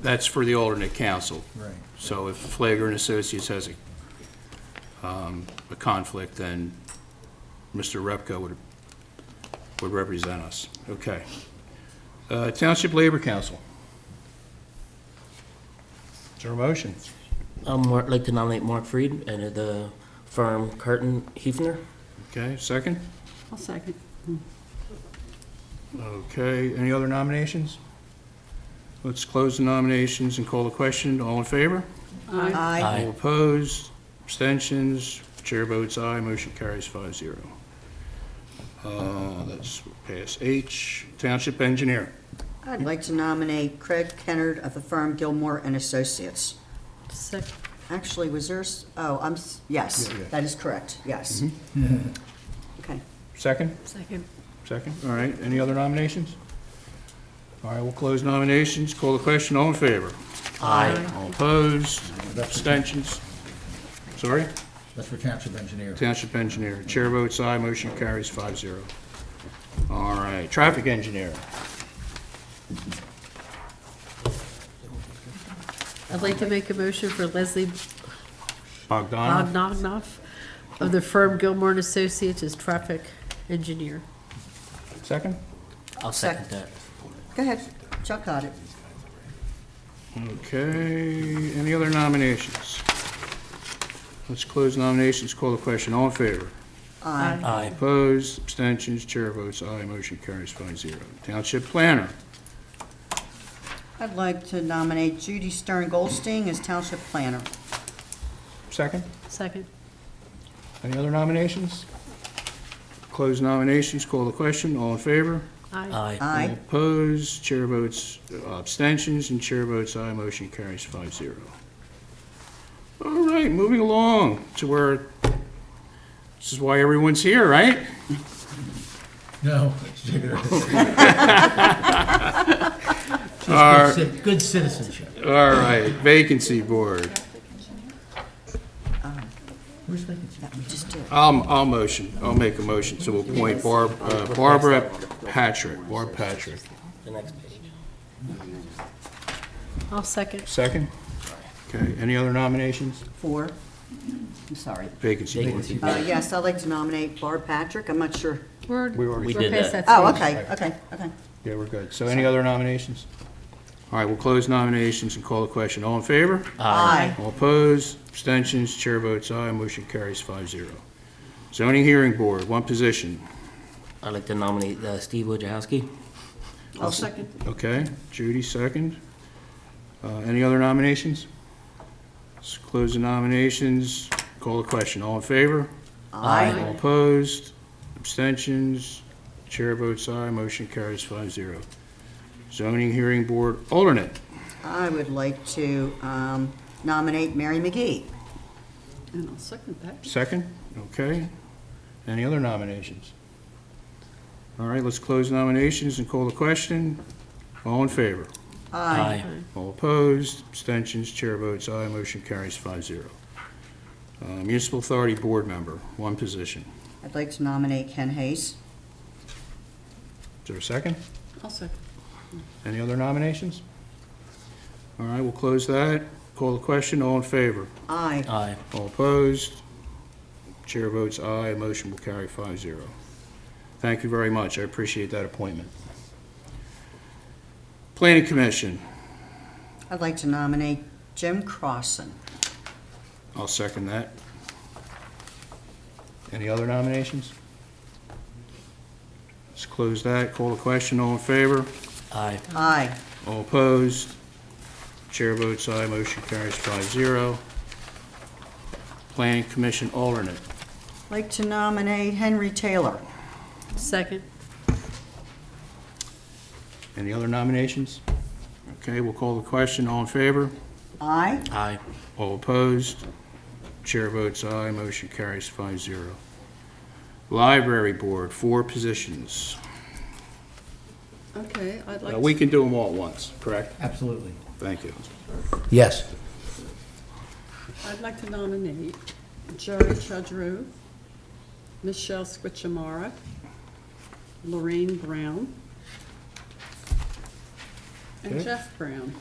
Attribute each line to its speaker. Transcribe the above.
Speaker 1: That's for the alternate council.
Speaker 2: Right.
Speaker 1: So if Flagler and Associates has a, um, a conflict, then Mr. Repko would, would represent us. Okay. Uh, Township Labor Council. Is there a motion?
Speaker 3: I'd like to nominate Mark Freed and uh, the firm Curtin Hefner.
Speaker 1: Okay, second?
Speaker 4: I'll second.
Speaker 1: Okay, any other nominations? Let's close the nominations and call the question. All in favor?
Speaker 4: Aye.
Speaker 3: Aye.
Speaker 1: All opposed, abstentions, chair votes aye, motion carries five zero. Let's pass H, Township Engineer.
Speaker 5: I'd like to nominate Craig Kennard of the firm Gilmore and Associates.
Speaker 4: Second.
Speaker 5: Actually, was there, s- oh, I'm, s- yes,
Speaker 1: Yeah, yeah.
Speaker 5: that is correct, yes. Okay.
Speaker 1: Second?
Speaker 4: Second.
Speaker 1: Second, all right, any other nominations? All right, we'll close nominations, call the question, all in favor?
Speaker 3: Aye.
Speaker 1: All opposed, abstentions, sorry?
Speaker 2: That's for township engineer.
Speaker 1: Township Engineer, chair votes aye, motion carries five zero. All right, Traffic Engineer.
Speaker 4: I'd like to make a motion for Leslie
Speaker 1: Bogdanov?
Speaker 4: Bogdanoff of the firm Gilmore and Associates as traffic engineer.
Speaker 1: Second?
Speaker 3: I'll second that.
Speaker 5: Go ahead, Chuck got it.
Speaker 1: Okay, any other nominations? Let's close nominations, call the question, all in favor?
Speaker 5: Aye.
Speaker 3: Aye.
Speaker 1: Opposed, abstentions, chair votes aye, motion carries five zero. Township Planner,
Speaker 5: I'd like to nominate Judy Stern Goldstein as township planner.
Speaker 1: second.
Speaker 4: Second.
Speaker 1: Any other nominations? Close nominations, call the question, all in favor? Um,
Speaker 4: Aye.
Speaker 3: Aye.
Speaker 1: All
Speaker 5: Aye.
Speaker 1: Opposed, chair votes, uh, abstentions, and chair votes aye, motion carries five zero. All right, moving along to where, this is why everyone's here, right?
Speaker 2: No.
Speaker 1: Our-
Speaker 2: Good citizenship.
Speaker 1: All right, vacancy board.
Speaker 2: Where's vacancy?
Speaker 5: That we just did.
Speaker 1: I'll, I'll motion, I'll make a motion to appoint Barb, uh, Barbara Patrick, Barb Patrick.
Speaker 3: The next page.
Speaker 4: I'll second.
Speaker 1: Second? Okay, any other nominations?
Speaker 5: Four. I'm sorry.
Speaker 1: Vacancy board.
Speaker 3: Vacancy.
Speaker 5: Uh, yes, I'd like to nominate Barb Patrick. I'm not sure.
Speaker 4: We're,
Speaker 1: We already
Speaker 4: we're
Speaker 3: did
Speaker 4: past that
Speaker 5: Oh,
Speaker 4: stage.
Speaker 5: okay, okay, okay.
Speaker 1: Yeah, we're good. So any other nominations? All right, we'll close nominations and call the question. All in favor?
Speaker 5: Aye.
Speaker 1: All opposed? Abstentions? Chair votes aye, motion carries five zero. Zoning hearing board, one position.
Speaker 3: I'd like to nominate uh, Steve Wojciechowski.
Speaker 5: I'll second.
Speaker 1: Okay, Judy, second. Uh, Any other nominations? Let's close the nominations, call the question, all in favor?
Speaker 3: Aye.
Speaker 1: All opposed, abstentions, chair votes aye, motion carries five zero. Zoning Hearing Board alternate,
Speaker 5: I would like to um, nominate Mary McGee.
Speaker 4: And I'll second that.
Speaker 1: second, okay. Any other nominations? All right, let's close nominations and call the question, all in favor?
Speaker 3: Aye.
Speaker 1: All opposed, abstentions, chair votes aye, motion carries five zero. Uh, Municipal Authority Board Member, one position.
Speaker 5: I'd like to nominate Ken Hayes.
Speaker 1: Is there a second?
Speaker 4: I'll second.
Speaker 1: Any other nominations? All right, we'll close that. Call the question, all in favor?
Speaker 5: Aye.
Speaker 3: Aye.
Speaker 1: All opposed, chair votes aye, motion will carry five zero. Thank you very much, I appreciate that appointment. Planning Commission,
Speaker 5: I'd like to nominate Jim Crossan.
Speaker 1: I'll second that. Any other nominations? Let's close that, call the question, all in favor?
Speaker 3: Aye.
Speaker 5: Aye.
Speaker 1: All opposed? Chair votes aye, motion carries five zero. Planning Commission alternate,
Speaker 5: I'd like to nominate Henry Taylor.
Speaker 4: Second.
Speaker 1: any other nominations? Okay, we'll call the question, all in favor?
Speaker 5: Aye.
Speaker 3: Aye.
Speaker 1: All opposed? Chair votes aye, motion carries five zero. Library Board, four positions.
Speaker 4: Okay, I'd like
Speaker 1: Uh,
Speaker 4: to.
Speaker 1: We can do them all at once, correct?
Speaker 2: Absolutely.
Speaker 1: Thank you.
Speaker 2: Yes.
Speaker 4: I'd like to nominate Jerry Chudrow, Michelle Squichamara, Lorraine Brown, and
Speaker 1: Okay.
Speaker 4: Jeff Brown.